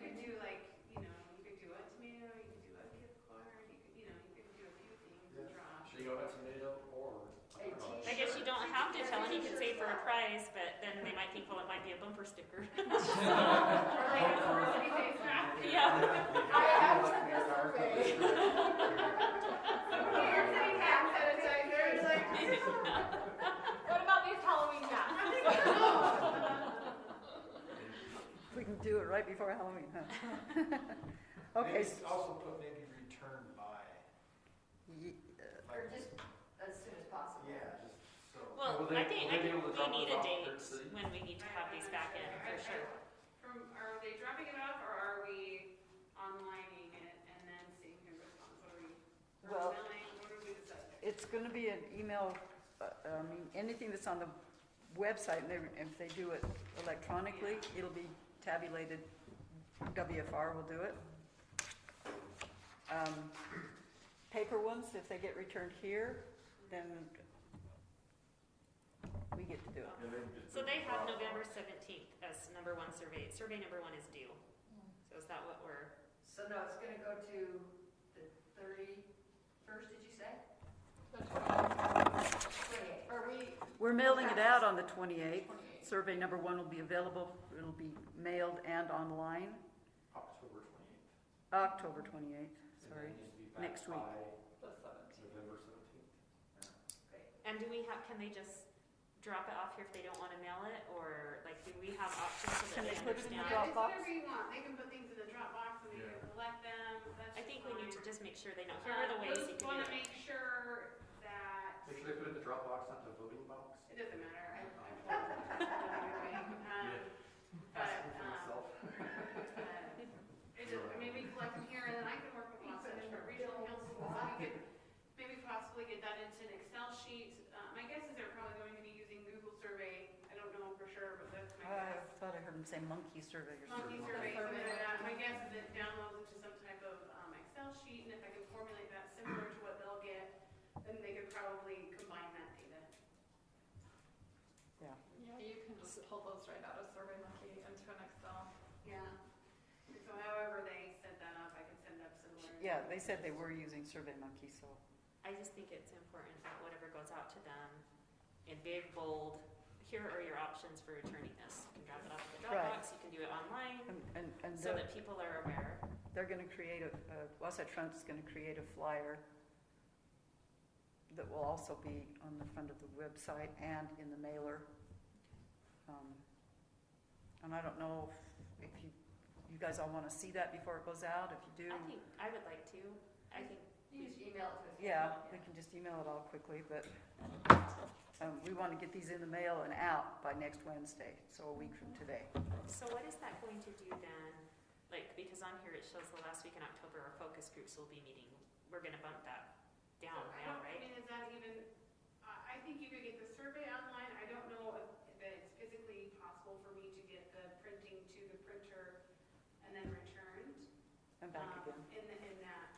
pay for a price, but then they might think, well, it might be a bumper sticker. Or like a publicity day snack. Yeah. I have to miss a day. Okay, you're sitting down, so it's like, you're like, What about these Halloween masks? We can do it right before Halloween, huh? Okay, Maybe s- also put maybe return by, ye- like, just as soon as possible. yeah, just so. Well, Will they- I think, I will they be think able to we drop need a those off date per city? when we need to have these back in, I- for I- sure. From, are they dropping it off or are we onlining it and then seeing who responds? What are we, Well- or mailing? what are we deciding? it's gonna be an email, uh, I mean, anything that's on the website, and they- if they do it electronically, it'll be tabulated, WFR will do it. Um, Paper ones, if they get returned here, then we get to do it. So they have November seventeenth as number one survey. Survey number one is due. So is that what we're, So no, it's gonna go to the thirty-first, did you say? Twenty-eighth. Are we, We're mailing it out on the twenty-eighth. Survey number one will be available, it'll be mailed and online, October twenty-eighth. October twenty-eighth, sorry. next week. the seventeenth? November seventeenth. and do we have, can they just drop it off here if they don't wanna mail it? Or like, do we have options so Can that they they put it in the understand? drop- Yeah, it's Dropbox? whatever you want. They can put things in the Dropbox and they can collect them. That's I think we need to fine. Um, just make sure they know, here are the ways you Just can wanna do it. make sure that, Make sure they put it in the Dropbox, not the voting box. it doesn't matter, I, I'm. Um, But, Asking for um, myself. Uh-huh. uh, it just, I mean, we collect them here and then I can work with Austin and for regional council, so we could maybe possibly get that into an Excel sheet. Uh, my guess is they're probably going to be using Google Survey, I don't know for sure, but that's my I guess. thought I heard him say monkey survey or something. Monkey Uh, survey, something like that. My guess is it downloads into some type of um, Excel sheet, and if I can formulate that similar to what they'll get, then they could probably combine that data. Yeah, you can just pull those right out of Survey Monkey into an Excel. Yeah. So however they set that up, I can send up similar. Yeah, they said they were using Survey Monkey, so. I just think it's important that whatever goes out to them in big, bold, here are your options for returning this. You can drop it off at the Right. Dropbox, you can do it online, And, and, and so they're, that people are aware. they're gonna create a, uh, Wasatch Front's gonna create a flyer that will also be on the front of the website and in the mailer. Um, And I don't know if, if you, you guys all wanna see that before it goes out, if you do. I think, I would like to, I think, You just email it to us. Yeah, we can just email it all quickly, but, um, we wanna get these in the mail and out by next Wednesday, so a week from today. so what is that going to do then? Like, because on here it shows the last week in October, our focus groups will be meeting. We're gonna bump that So down I now, don't, I right? mean, is that even, I, I think you could get the survey online, I don't know if that it's physically possible for me to get the printing to the printer and then returned. I'm back um, again. In, the- in that.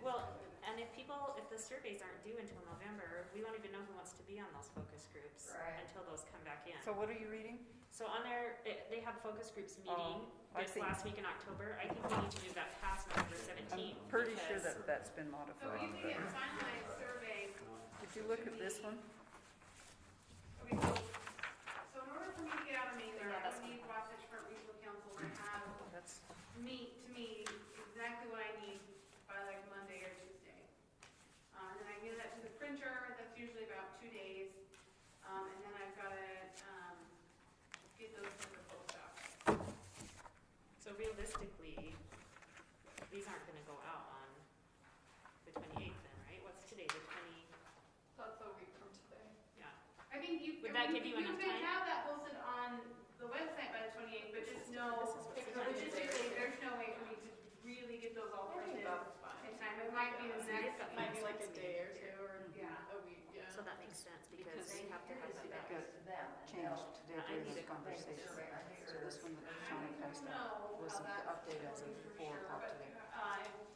Well, and if people, if the surveys aren't due until November, we won't even know who wants to be on those focus groups Right. until those come back in. So what are you reading? So on their, it- they have focus groups meeting Oh, I this see. last week in October. I think we need to do that past November I'm seventeenth. pretty sure that that's been So modified. Oh, you can get finalized surveys Did you look at this one? Okay, so, so in order for me to get out of Mather, Yeah, I that's would need Wasatch Front Regional Council to have That's, me, to me, exactly what I need by like Monday or Tuesday. Um, and then I give that to the printer, that's usually about two days, um, and then I've gotta, um, get those to the post office. So realistically, these aren't gonna go out on the twenty-eighth then, right? What's today, the twenty, That's a week from today. yeah. I think you, Would that you give you enough you could time? have that posted on the website by the twenty-eighth, but just know, This is what's in my- logistically, there's no way for me to really get those all printed in time, it might be the So you've next. got Might be next like week's a day or meeting. two or Yeah. a week, yeah. So that makes sense because Because they have to have that back. got changed today during this conversation. So this one that Shauna passed out was the update as of four o'clock today. Uh,